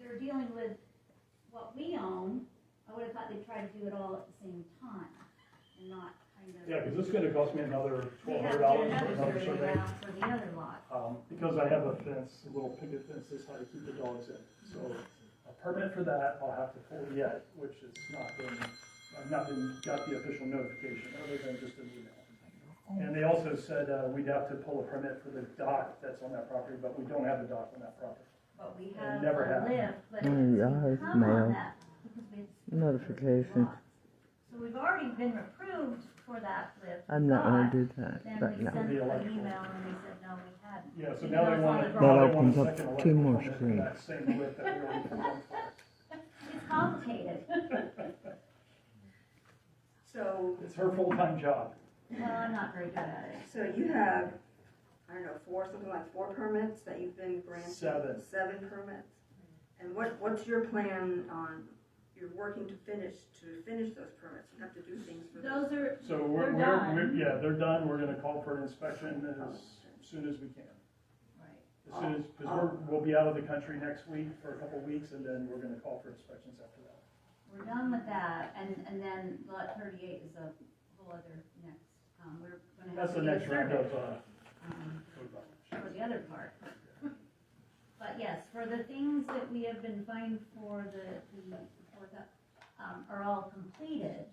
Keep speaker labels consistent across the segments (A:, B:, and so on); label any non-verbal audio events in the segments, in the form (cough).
A: we're dealing with what we own, I would have thought they'd try to do it all at the same time and not kind of.
B: Yeah, because it's gonna cost me another
A: We
B: twelve
A: have to
B: hundred
A: get another
B: dollars for another
A: survey
B: survey.
A: out for the other lot.
B: Um, because I have a fence, a little picket fence this high to keep the dogs in. So a permit for that, I'll have to pull yet, which has not been, I've not been, got the official notification other than just an email. And they also said, uh, we'd have to pull a permit for the dock that's on that property, but we don't have the dock on that property.
A: But we
B: It
A: have
B: never
A: a
B: happened.
A: lift, but
C: Oh,
A: we
C: yes,
A: come on
C: ma'am.
A: that because we.
C: Notification.
A: So we've already been approved for that lift.
C: I'm not gonna
A: but
C: do that
A: Then
C: right
A: we
C: now.
A: sent
B: The
A: them an
B: electrical.
A: email and they said, no, we hadn't.
B: Yeah, so
A: Even
B: now
A: though
B: they
A: it's
B: want,
A: on the
B: now they
C: That
B: want a
C: opens up
B: second
C: two more
B: electrical permit for
C: screens.
B: that same width that we already performed for.
A: It's complicated.
D: So,
B: It's her full-time job.
A: Well, I'm not very good at it.
D: so you have, I don't know, four, something like four permits that you've been granted?
B: Seven.
D: Seven permits? And what, what's your plan on, you're working to finish, to finish those permits? You have to do things for those?
A: Those are,
B: So
A: They're
B: we're, we're, we're-
A: done.
B: yeah, they're done, we're gonna call for an inspection as soon as we can. As soon as, because we're,
A: Oh.
B: we'll be out of the country next week for a couple weeks, and then we're gonna call for inspections after that.
A: we're done with that, and, and then lot thirty-eight is a whole other next, um, we're gonna have
B: That's
A: to
B: the
A: do a
B: next round
A: survey.
B: of, uh,
A: um,
B: code violations.
A: For the other part. But yes, for the things that we have been fined for the, the, for the, um, are all completed.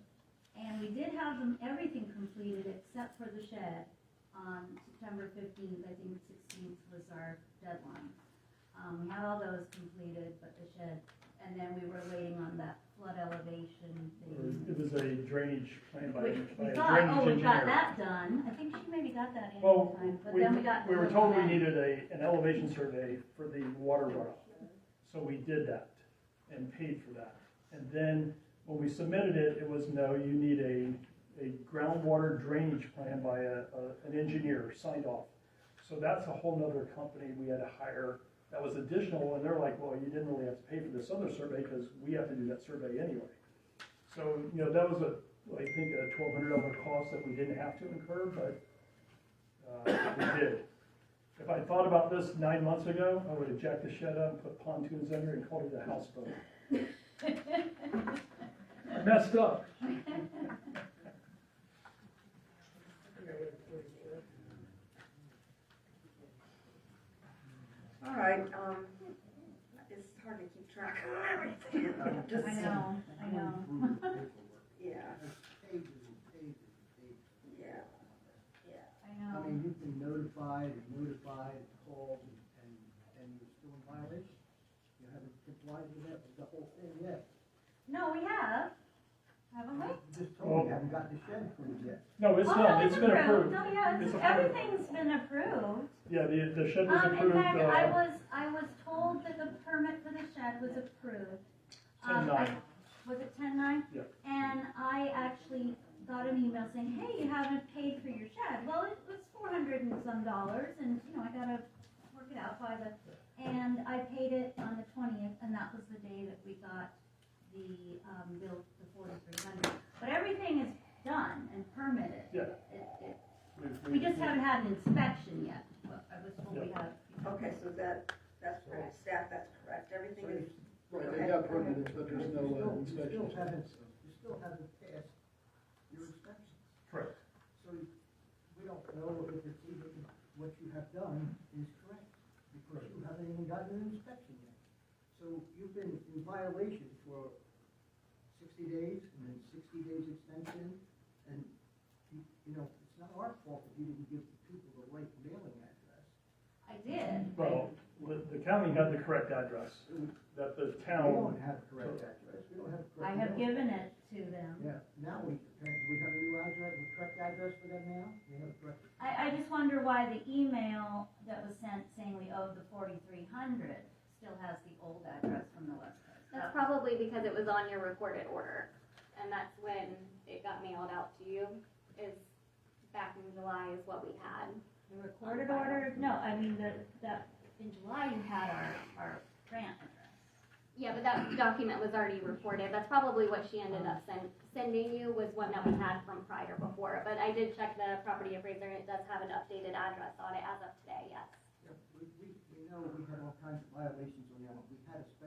A: And we did have them, everything completed except for the shed on September fifteenth, I think sixteenth was our deadline. Um, we had all those completed, but the shed, and then we were waiting on that flood elevation thing.
B: It was a drainage plan by,
A: Which
B: Mm-hmm. by
A: we
B: a
A: thought, oh,
B: drainage
A: we got
B: engineer.
A: that done, I think she maybe got that in
B: Well,
A: time, but
B: we,
A: then we got.
B: we were
A: pulled
B: told we
A: back.
B: needed a, an elevation survey for the water runoff. So we did that and paid for that. And then when we submitted it, it was, no, you need a, a groundwater drainage plan by a, a, an engineer signed off. So that's a whole nother company we had to hire that was additional, and they're like, well, you didn't really have to pay for this other survey because we have to do that survey anyway. So, you know, that was a, I think, a twelve hundred dollar cost that we didn't have to incur, but, uh, we did. If I thought about this nine months ago, I would have jacked the shed up, put pontoons under it, and called it
A: (laughs)
B: a houseboat. I messed up.
D: All right, um, it's hard to keep track of
E: (laughs)
D: everything. Just-
A: I know, I know.
D: Yeah,
F: Pages and pages and pages.
D: yeah.
A: I
F: I
A: know.
F: mean, you've been notified and notified and called and, and, and you're still in violation. You haven't complied with that, with the whole thing yet.
A: No, we have. Haven't we?
F: You just told me you haven't gotten the shed approved yet.
B: No, it's
A: Oh,
B: done,
A: no,
B: it's been approved.
A: No, yeah,
B: It's
A: it's,
B: approved.
A: everything's been approved.
B: Yeah, the, the shed was
A: Um, in
B: approved,
A: fact, I
B: uh,
A: was, I was told that the permit for the shed was approved.
B: ten
A: Um,
B: nine.
A: I- Was it ten nine?
B: Yeah.
A: And I actually got an email saying, hey, you haven't paid for your shed. Well, it was four hundred and some dollars and, you know, I gotta work it out by the, and I paid it on the twentieth and that was the day that we got the, um, bill, the forty-three hundred. But everything is done and permitted.
B: Yeah.
A: It, it, we just haven't had an inspection yet. But I was told we have.
D: Okay, so that, that's correct, staff, that's correct. Everything is,
E: Right, they got permitted, but there's no
F: You
E: uh,
F: still-
E: inspection.
F: You still haven't, you still haven't passed your inspection.
B: Correct.
F: So we don't know if it's even, what you have done is correct, because you haven't even gotten an inspection yet. So you've been in violation for sixty days, and then sixty days extension, and, you you know, it's not our fault if you didn't give the people the right mailing address.
A: I did.
B: Well, the the county had the correct address that the
F: We don't
B: town,
F: have a correct address, we don't have a correct.
A: I have given
F: mailing.
A: it to them.
F: Yeah, now we, do we have a new address, a correct address for them now? We have a correct
A: I, I just wonder why the email that was sent saying we owed the forty-three hundred still has the old address from the West Coast. Uh,
G: That's probably because it was on your recorded order, and that's when it got mailed out to you, is back in July is what we had.
A: The recorded order, no, I mean, the, the, in July you had our, our grant address.
G: Yeah, but that document was already recorded, that's probably what she ended up send, sending you was one that we had from prior before, but I did check the property appraiser, and it does have an updated address on it as of today, yes.
F: Yep, we, we, we know we had all kinds of violations on that, we had a special